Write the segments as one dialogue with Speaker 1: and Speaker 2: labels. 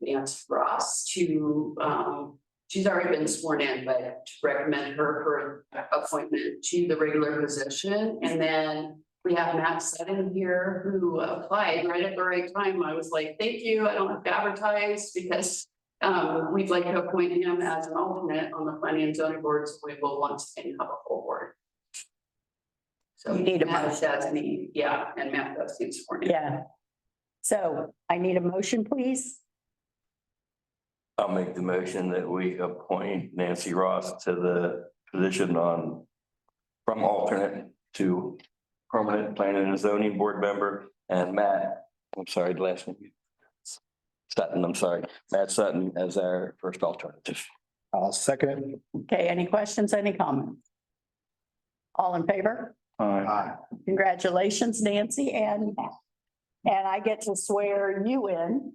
Speaker 1: Nancy Ross to, um, she's already been sworn in, but to recommend her for appointment to the regular position. And then we have Matt Sutton here who applied right at the right time. I was like, thank you, I don't have to advertise because um, we'd like to appoint him as an alternate on the planning and zoning board, so we will once again have a full board. So
Speaker 2: You need a
Speaker 1: Matt
Speaker 2: motion.
Speaker 1: Chesney, yeah, and Matt Dusty's sworn in.
Speaker 2: Yeah. So I need a motion, please.
Speaker 3: I'll make the motion that we appoint Nancy Ross to the position on from alternate to permanent planning and zoning board member and Matt, I'm sorry, the last name. Sutton, I'm sorry, Matt Sutton as our first alternative.
Speaker 4: I'll second it.
Speaker 2: Okay, any questions, any comments? All in favor?
Speaker 4: Aye.
Speaker 2: Congratulations, Nancy, and, and I get to swear you in,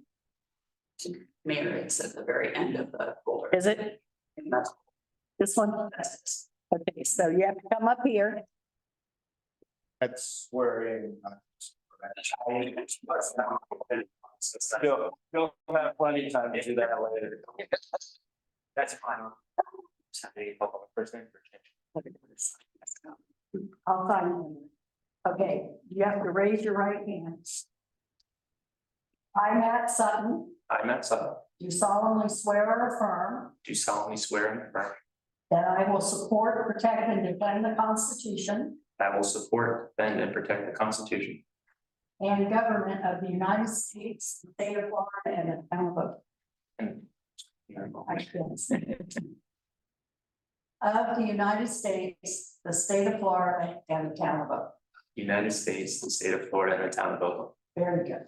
Speaker 1: Mayor, it's at the very end of the folder.
Speaker 2: is it?
Speaker 1: And that's
Speaker 2: This one? Okay, so you have to come up here.
Speaker 4: That's swearing.
Speaker 3: You'll, you'll have plenty of time to do that later. That's fine.
Speaker 2: I'll sign it. Okay, you have to raise your right hand. I, Matt Sutton,
Speaker 5: I, Matt Sutton,
Speaker 2: do solemnly swear or affirm
Speaker 5: do solemnly swear and affirm
Speaker 2: that I will support, protect, and defend the Constitution
Speaker 5: that I will support, defend, and protect the Constitution
Speaker 2: and government of the United States, the state of Florida, and the town of
Speaker 5: and
Speaker 2: Oceanside. Of the United States, the state of Florida, and the town of Oak.
Speaker 5: United States, the state of Florida, and the town of Oakland.
Speaker 2: Very good.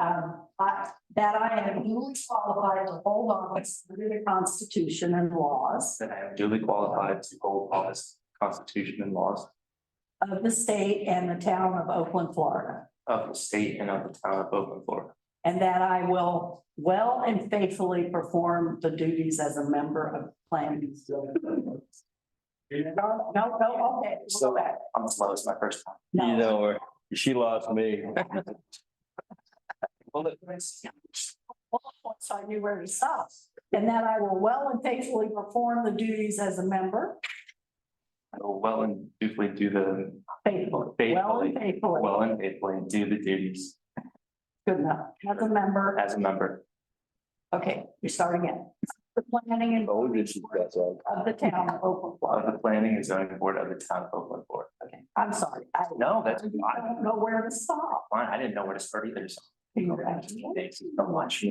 Speaker 2: Um, I, that I am duly qualified to hold office under the Constitution and laws
Speaker 5: That I am duly qualified to hold office, Constitution and laws
Speaker 2: of the state and the town of Oakland, Florida.
Speaker 5: of the state and of the town of Oakland, Florida.
Speaker 2: And that I will well and faithfully perform the duties as a member of planning. No, no, no, okay, go back.
Speaker 5: I'm as low as my first time.
Speaker 2: No,
Speaker 3: You know, her. she lost me.
Speaker 5: Well, look,
Speaker 2: once I knew where to stop. And that I will well and faithfully perform the duties as a member
Speaker 5: I will well and dutifully do the,
Speaker 2: faithfully, well and
Speaker 5: Faithfully.
Speaker 2: faithfully.
Speaker 5: well and faithfully do the duties
Speaker 2: Good enough. As a member,
Speaker 5: as a member
Speaker 2: okay, you're starting it. The planning and
Speaker 3: Oh, this is- that's all.
Speaker 2: of the town of Oakland,
Speaker 5: of
Speaker 2: Florida.
Speaker 5: the planning and zoning board of the town of Oakland, Florida.
Speaker 2: Okay, I'm sorry. I
Speaker 5: No,
Speaker 2: I
Speaker 5: that's fine.
Speaker 2: don't know where to stop.
Speaker 5: Fine, I didn't know where to start either, so. Thanks so much.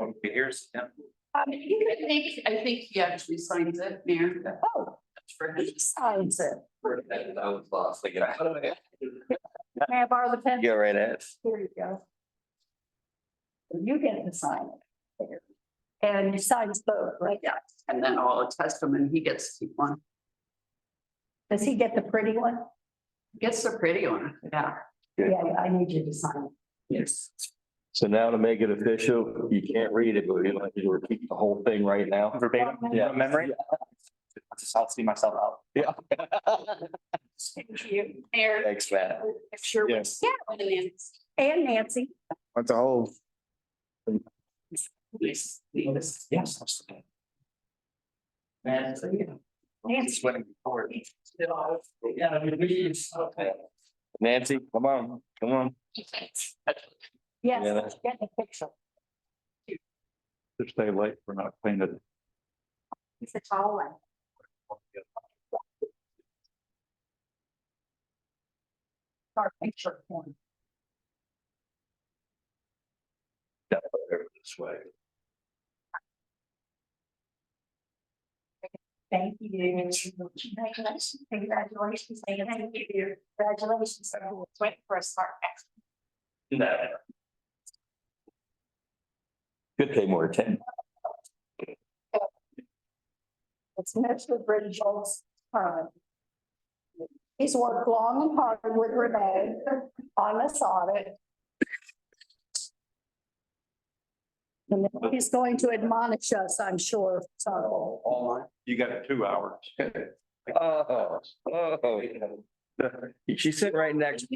Speaker 5: Okay, Here's, yeah,
Speaker 1: Um, you could think, I think he actually signs it, Mayor.
Speaker 2: Oh.
Speaker 1: That's for him.
Speaker 2: He signs it.
Speaker 3: I was lost again.
Speaker 2: May I borrow the pen?
Speaker 3: You're right, Ed.
Speaker 2: Here you go. You get to sign it. And you sign both, right?
Speaker 1: Yeah, and then I'll attest him and he gets to keep one.
Speaker 2: Does he get the pretty one?
Speaker 1: Gets the pretty one, yeah.
Speaker 3: Yeah.
Speaker 2: Yeah, I need you to sign it.
Speaker 1: Yes.
Speaker 3: So now to make it official, you can't read it, but you want me to repeat the whole thing right now?
Speaker 5: verbatim,
Speaker 3: Yeah.
Speaker 5: yeah, memory. I'll Just, I'll see myself out.
Speaker 3: Yeah.
Speaker 2: Thank you.
Speaker 1: Mayor.
Speaker 3: Thanks, Matt.
Speaker 1: Sure.
Speaker 3: Yes.
Speaker 1: Yeah. and then-
Speaker 2: And Nancy.
Speaker 4: That's a whole.
Speaker 1: Yes. Yes.
Speaker 5: Yes. absolutely. And. so, yeah. Just went forward. Yeah, I mean, we, okay.
Speaker 3: Nancy, come on, come on. Yeah,
Speaker 2: Yes,
Speaker 3: that's-
Speaker 2: get the picture.
Speaker 3: Just stay late, we're not cleaning it.
Speaker 2: It's a tall one. Our picture form.
Speaker 3: This way.
Speaker 2: Thank you. Congratulations. Congratulations. Thank you. Congratulations. Wait for a start.
Speaker 5: No.
Speaker 3: Could pay more attention.
Speaker 2: It's Mr. Bridgel's turn. um, He's worked long and hard with Renee on this audit. And he's going to admonish us, I'm sure, so.
Speaker 4: You got two hours.
Speaker 3: Oh, oh. She said right next.